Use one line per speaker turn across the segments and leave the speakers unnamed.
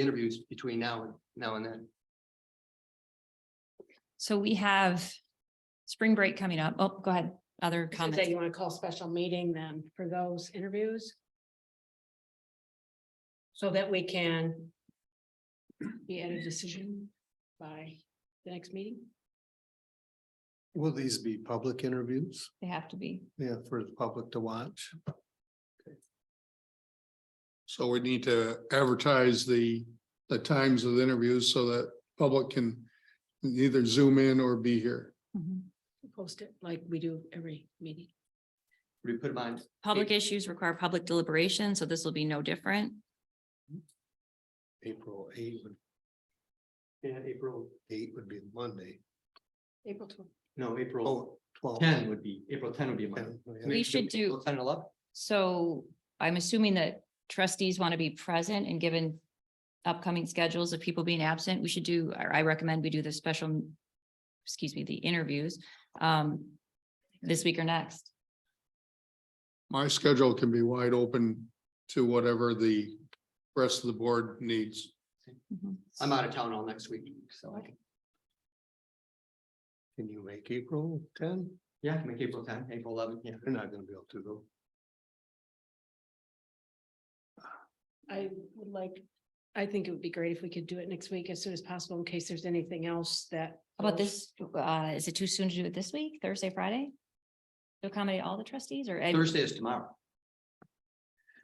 interviews between now and now and then.
So we have spring break coming up. Oh, go ahead. Other
That
comments?
you want to call special meeting then for those interviews? So that we can be at a decision by the next meeting?
Will these be public interviews?
They have to be.
Yeah, for the public to watch.
So we need to advertise the, the times of the interviews so that public can either zoom in or be here.
Post it like we do every meeting.
We put them on,
Public issues require public deliberation, so this will be no different.
April eight. would- Yeah, April eight would be Monday.
April twelfth.
No, April
Oh, twelve.
ten would be, April ten would be Monday.
Ten, oh, yeah.
So maybe
should do-
April Ten and eleven.
So I'm assuming that trustees want to be present and given upcoming schedules of people being absent, we should do, or I recommend we do the special, excuse me, the interviews um, this week or next.
My schedule can be wide open to whatever the rest of the board needs.
I'm out of town all next week, so.
Can you make April ten?
Yeah, I can make April ten, April eleven, yeah.
You're not gonna be able to though.
I would like, I think it would be great if we could do it next week as soon as possible in case there's anything else that.
How about this? Uh, is it too soon to do it this week, Thursday, Friday? To accommodate all the trustees or a
Thursday is tomorrow.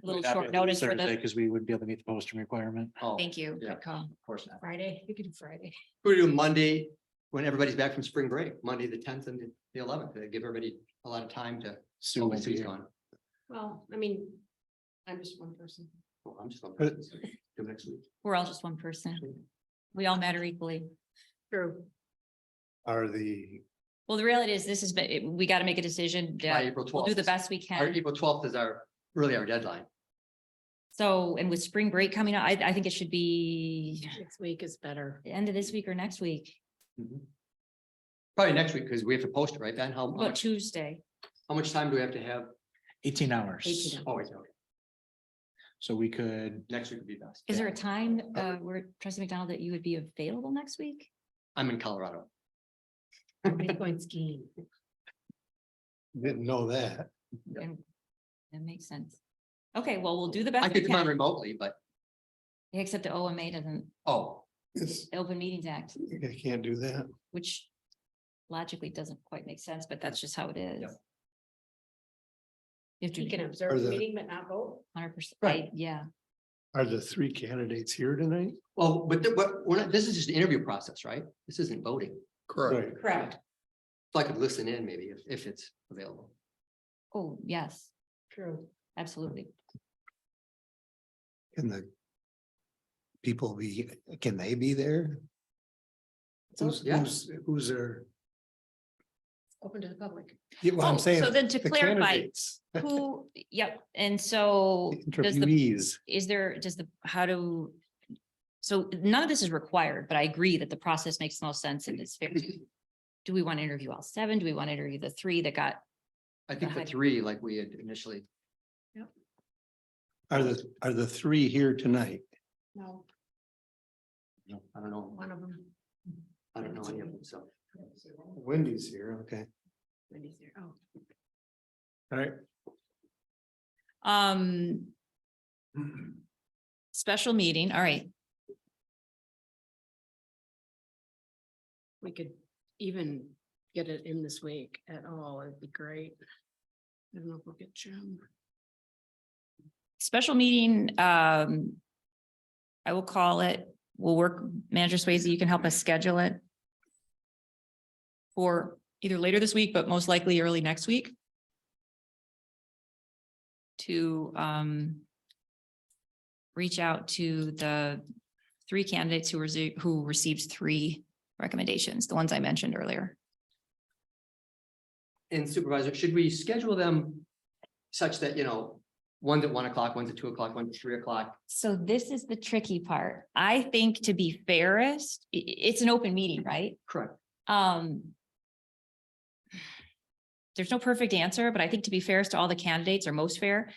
little
We'd have
short
to do
notice for
Thursday,
the,
Cause we wouldn't be able to meet the posting requirement.
Oh,
thank you,
yeah.
good call.
Of course not.
Friday, you could do Friday.
We do Monday, when everybody's back from spring break, Monday, the tenth and the eleventh, give everybody a lot of time to.
Sue
Oh,
won't be
Sue's
here.
gone.
Well, I mean, I'm just one person.
Oh, I'm just on
But-
vacation, so Do next week.
We're all just one person. We all matter equally.
True.
Are the,
Well, the reality is this is, but it- we got to make a decision.
By
uh,
April
We'll
twelfth.
do the best we
Our
can.
April twelfth is our, really our deadline.
So, and with spring break coming up, I, I think it should be
Next week is better.
the end of this week or next week,
Mm-hmm. Probably next week, because we have to post it, right, Ben? How how
What about
much,
Tuesday.
how much time do we have to have?
eighteen hours,
18 hours.
Oh, wait, okay,
so we could,
next week would be best.
Is there a
Yeah.
time, uh, where trustee McDonald that you would be available next week?
I'm in Colorado.
Everybody's going skiing.
didn't know that.
Yeah.
And that makes sense. Okay, well, we'll do the
I
best we
could come on
can,
remotely, but,
except the OMA doesn't,
oh,
the Open Meetings Act,
you can't do that.
which logically doesn't quite make sense, but that's just how it is. You have to
You can
be
observe the
the-
meeting but not vote.
hundred percent,
Right.
yeah.
Are the three candidates here tonight?
well, but, th- but, we're not, this is just an interview process, right? This isn't voting.
Correct.
Correct.
So I could listen in maybe if, if it's available.
Oh, yes,
True.
absolutely.
Can the people be, can they be there? Who's,
Yeah.
who's, who's there?
Open to the public.
Yeah, well,
Oh,
I'm saying.
So then to
the
clarify,
candidates,
who, yep, and so does the,
Interviewees,
is there, does the, how do? So none of this is required, but I agree that the process makes the most sense and it's fair. Do we want to interview all seven? Do we want to interview the three that got,
I think the
Ahead.
three, like we had initially,
are the, are the three here tonight?
No,
I don't know,
one of them.
I don't know any of them, so.
Wendy's here, okay.
Wendy's there. Oh,
All right,
um. Special meeting, all right,
we could even get it in this week at all. It'd be great. I don't know if we'll get Jim.
special meeting, um. I will call it, we'll work, Manager Swayze, you can help us schedule it. For either later this week, but most likely early next week. To, um. Reach out to the three candidates who received, who received three recommendations, the ones I mentioned earlier.
And supervisor, should we schedule them such that, you know, one's at one o'clock, one's at two o'clock, one's at three o'clock?
So this is the tricky part. I think to be fairest, i- i- it's an open meeting, right?
Correct.
Um. There's no perfect answer, but I think to be fairest to all the candidates or most fair.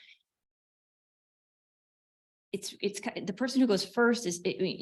it's, it's, ki- the person who goes first is, it-